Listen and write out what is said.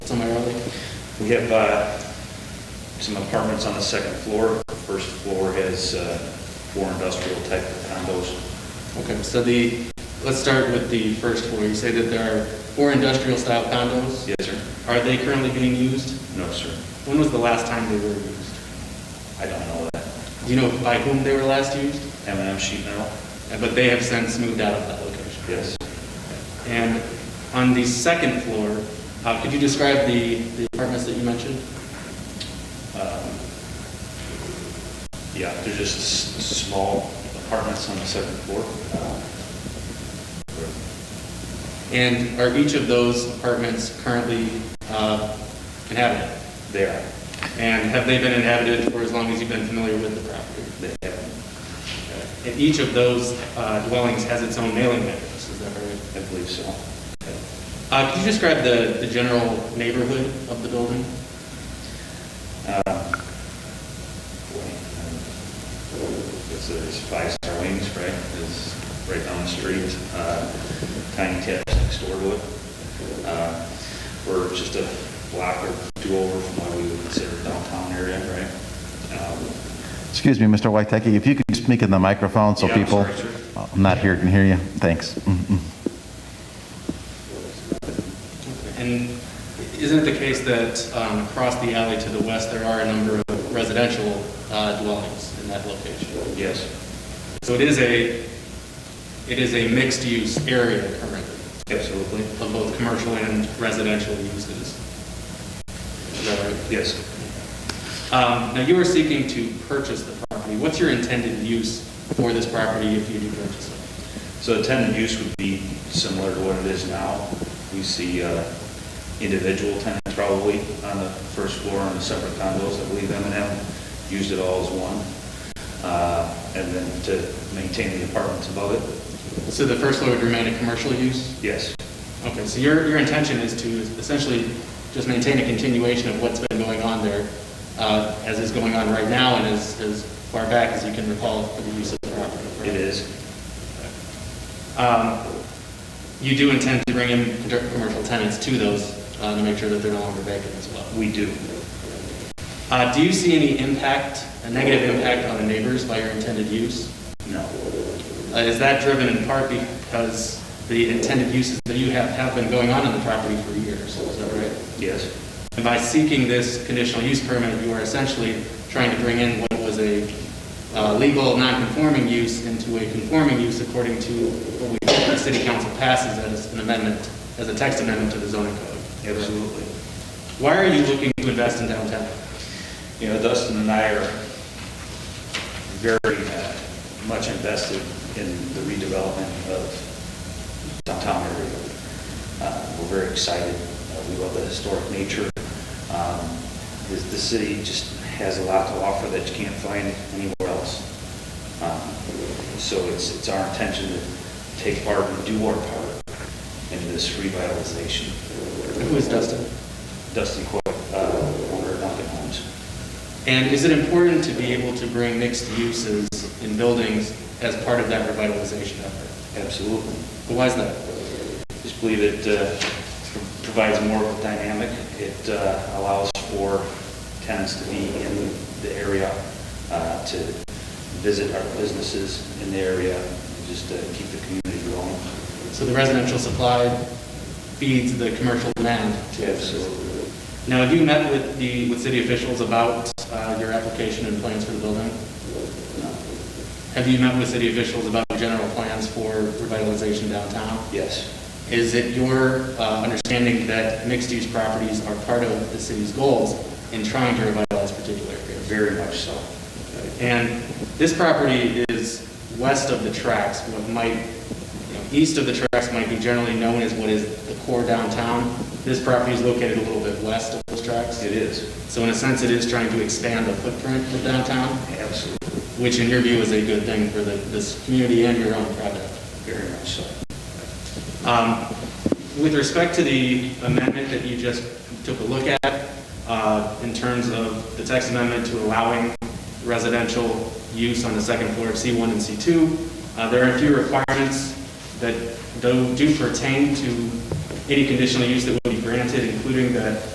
We have uh, some apartments on the second floor. The First floor has uh, four industrial type condos. Okay, so the, let's start with the first floor. You say that there are four industrial style condos? Yes, sir? Are they currently being used? No, sir. When was the last time they were used? I don't know that. Do you know by whom they were last used? M and M sheet metal? Uh, But they have since moved out of that location. Yes. And on the second floor, uh, could you describe the the apartments that you mentioned? Um, Yeah, they're just s- small apartments on the second floor. And are each of those apartments currently uh, inhabited? They are. And have they been inhabited for as long as you've been familiar with the property? They have, And each of those uh, dwellings has its own mailing address, is that right? I believe so. Uh, Could you describe the the general neighborhood of the building? Um, It's, it's Five Star Wings, right? It's right down the street. Uh, Tiny Tips next door to it. Uh, We're just a block or two over from what we would consider downtown area, right? Um, Excuse me, Mr. Wyteki, if you could speak in the microphone so Yeah, I'm people sorry, sir. I'm not here can hear you. Thanks. Mm-hmm. Mm-mm. And isn't it the case that um, across the alley to the west, there are a number of residential uh, dwellings in that location? Yes, So it is a, it is a mixed-use area currently absolutely. of both commercial and residential uses. Is that right? Yes. Um, Now, you are seeking to purchase the property. What's your intended use for this property if you do purchase it? So the tenant use would be similar to what it is now. We see uh, individual tenants probably on the first floor on the separate condos, I believe M and M used it all as one. Uh, And then to maintain the apartments above it, So the first floor would remain a commercial use? yes, Okay, so your, your intention is to essentially just maintain a continuation of what's been going on there, uh, as is going on right now and as, as far back as you can recall for the use of the property. correct? it is. Um, You do intend to bring in con- commercial tenants to those, uh, to make sure that they're no longer vacant as well. We do. Uh, do you see any impact, a negative impact on the neighbors by your intended use? No, Uh, is that driven in part because the intended uses that you have, have been going on in the property for years, is that right? yes, And by seeking this conditional use permit, you are essentially trying to bring in what was a uh, legal, non-conforming use into a conforming use according to what we, the city council passes as an amendment, as a text amendment to the zoning code. absolutely. Why are you looking to invest in downtown? You know, Dustin and I are very uh, much invested in the redevelopment of downtown area. Uh, We're very excited. Uh, We love the historic nature. Um, The the city just has a lot to offer that you can't find anywhere else. Um, So it's, it's our intention to take part and do our part in this revitalization. Who is Dustin? Dustin Coyle, uh, owner of Duncan Homes. And is it important to be able to bring mixed uses in buildings as part of that revitalization effort? Absolutely. But Why is that? Just believe it uh, provides more of a dynamic. It uh, allows for tenants to be in the area, uh, to visit our businesses in the area, and just uh, keep the community going. So the residential supply feeds the commercial demand. Absolutely. Now, have you met with the, with city officials about uh, your application and plans for the building? Have you met with city officials about general plans for revitalization downtown? Yes, Is it your uh, understanding that mixed-use properties are part of the city's goals in trying to revitalize particular areas? very much so. And this property is west of the tracks, what might, you know, east of the tracks might be generally known as what is the core downtown. This property is located a little bit west of those tracks. It is, So in a sense, it is trying to expand the footprint of downtown, absolutely, which in your view is a good thing for the, this community and your own product. very much so. Um, With respect to the amendment that you just took a look at, uh, in terms of the text amendment to allowing residential use on the second floor of C1 and C2, uh, there are a few requirements that do do pertain to any conditional use that would be granted, including that